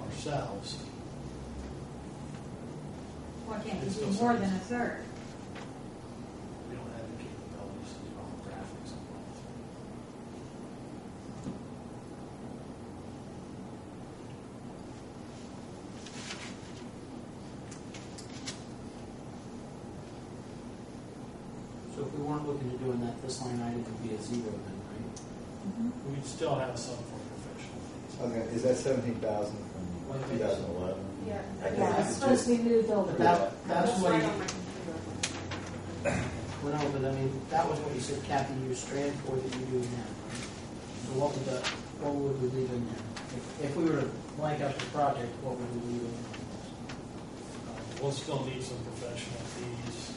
themselves. Why can't you It's do still more than service. a third? We don't have the capabilities to do all the graphics and all that. So if we weren't looking at doing that, this line item would be a zero then, right? Mm-hmm. We'd still have some for professional fees. Okay, is that seventeen thousand from One two thousand eleven? Yeah. Yeah, it's supposed to be moved But over. that, that's what right you, on my computer. well, no, but I mean, that was what you said, Kathy, you strand for that you're doing now, right? So what would the, what would we leave in there? If- If we were to blank out the project, what would we leave in there? Um, We'll still need some professional fees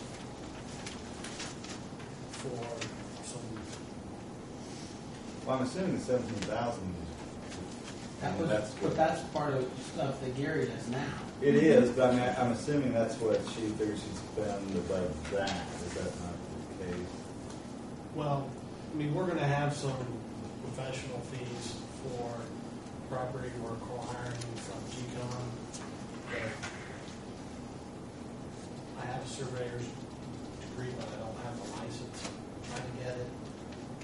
for some, Well, I'm assuming the seventeen thousand That is. was, but that's part of stuff that Gary does now. It is, but I mean, I'm assuming that's what she figures she'd spend above that, is that not the case? well, I mean, we're gonna have some professional fees for property work we're hiring from GCOM. I have a surveyor's degree, but I don't have a license, I'm trying to get it,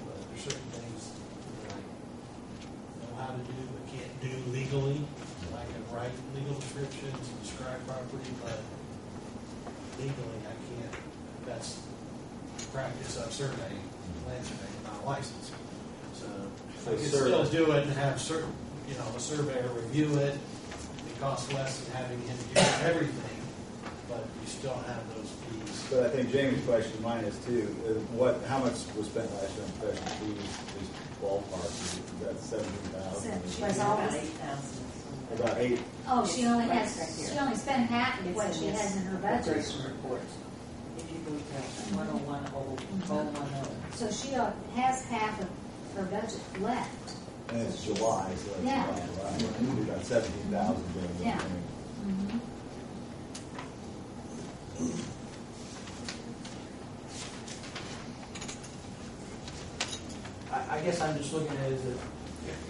but there's certain things that I know how to do, but can't do legally. I can write legal descriptions and describe property, but legally I can't, that's practice of surveying, land surveying, not licensed. So So I could still survey. do it and have certain, you know, a surveyor review it, it costs less than having him do everything, but you still have those fees. But I think Jamie's question, mine is too, is what, how much was spent last year on professional fees, just ballpark, is that seventeen She thousand? was always. About eight, Oh, she only It's right has, here. she only spent half of It's what in she this has in her budget. progression report. If you go to one oh one oh, oh one oh. So she uh, has half of her budget left. and it's July, so that's Yeah. July, right? We got seventeen thousand. Yeah. Mm-hmm. I, I guess I'm just looking at it as a,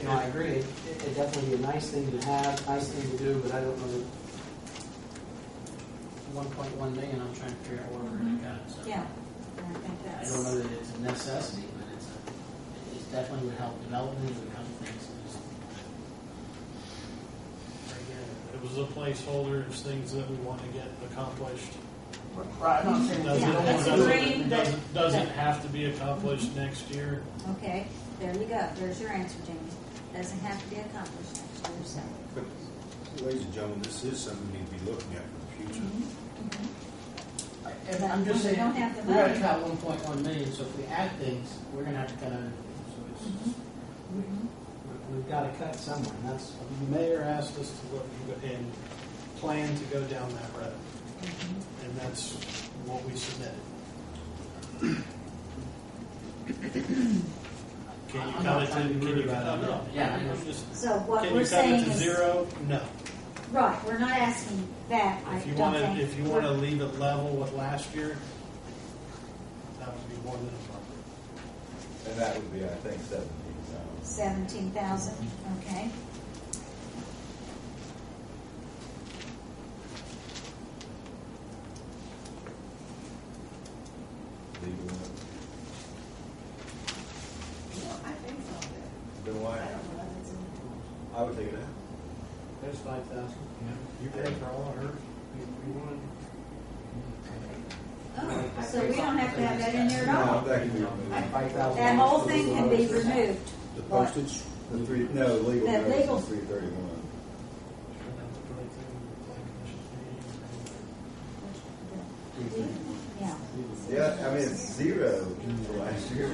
you know, I agree, it- it'd definitely be a nice thing to have, nice thing to do, but I don't know that one point one million, I'm trying to figure out where we're gonna cut it, so. Yeah, and I think I that's. don't know that it's a necessity, but it's a, it definitely would help development, it would help things. and just- Again, It was a placeholder, it's things that we want to get accomplished. Right, I'm not saying that Doesn't- we don't Yeah, want that's to. a dream Doesn't, that- doesn't- doesn't have to be accomplished next year. Okay, there you go, there's your answer, Jamie. Doesn't have to be accomplished next year, so. Ladies and gentlemen, this is something we need to be looking at for the Mm-hmm. Mm-hmm. And I'm just We saying, don't have the we're at money. about one point one million, so if we add things, we're gonna have to cut other things, so it's, just- Mm-hmm. we- we've gotta cut somewhere, and that's, The mayor asked us to look and plan to go down that road, Mm-hmm. and that's what we submitted. Can you I'm cut not it to, trying to be can rude you cut, about oh, it. no. Yeah, I know. I'm just- So what Can we're you cut it saying to is. zero? No. Right, we're not asking that, I If you don't want to, think. if you want to leave it level with last year, that would be more than appropriate. future, and that would be, I think, seventeen thousand. Seventeen thousand, okay. legal. No, I think so, Then but why, I don't know if it's in. I would take it out. there's five thousand. You pay for all of her. Oh, so we don't have to have that in there at all. No, that can be removed. Five thousand. That whole thing can be removed. The What? postage? The three, no, legal That notice legal- is three thirty-one. Yeah. Yeah, I mean, it's zero for last year.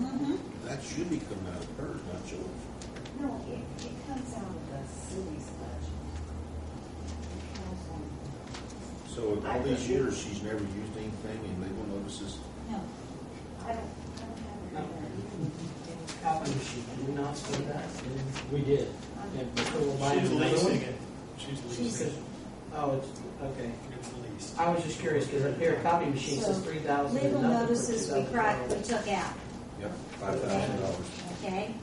Mhm. That should be coming out of hers, not yours. No, it, it comes out of the city's budget. It comes on. So in all these years, she's never used anything in legal notices. No. I don't, I don't have it. Copy machine, did we not spend that? Didn't- We did. Okay, but we'll buy She's another one. leasing it. She's She's- leasing it. Oh, it's, okay. It's leased. I was just curious, because up here, copy machine says So, three thousand. Legal notices we cri- we took out, Yep. Five thousand dollars. okay?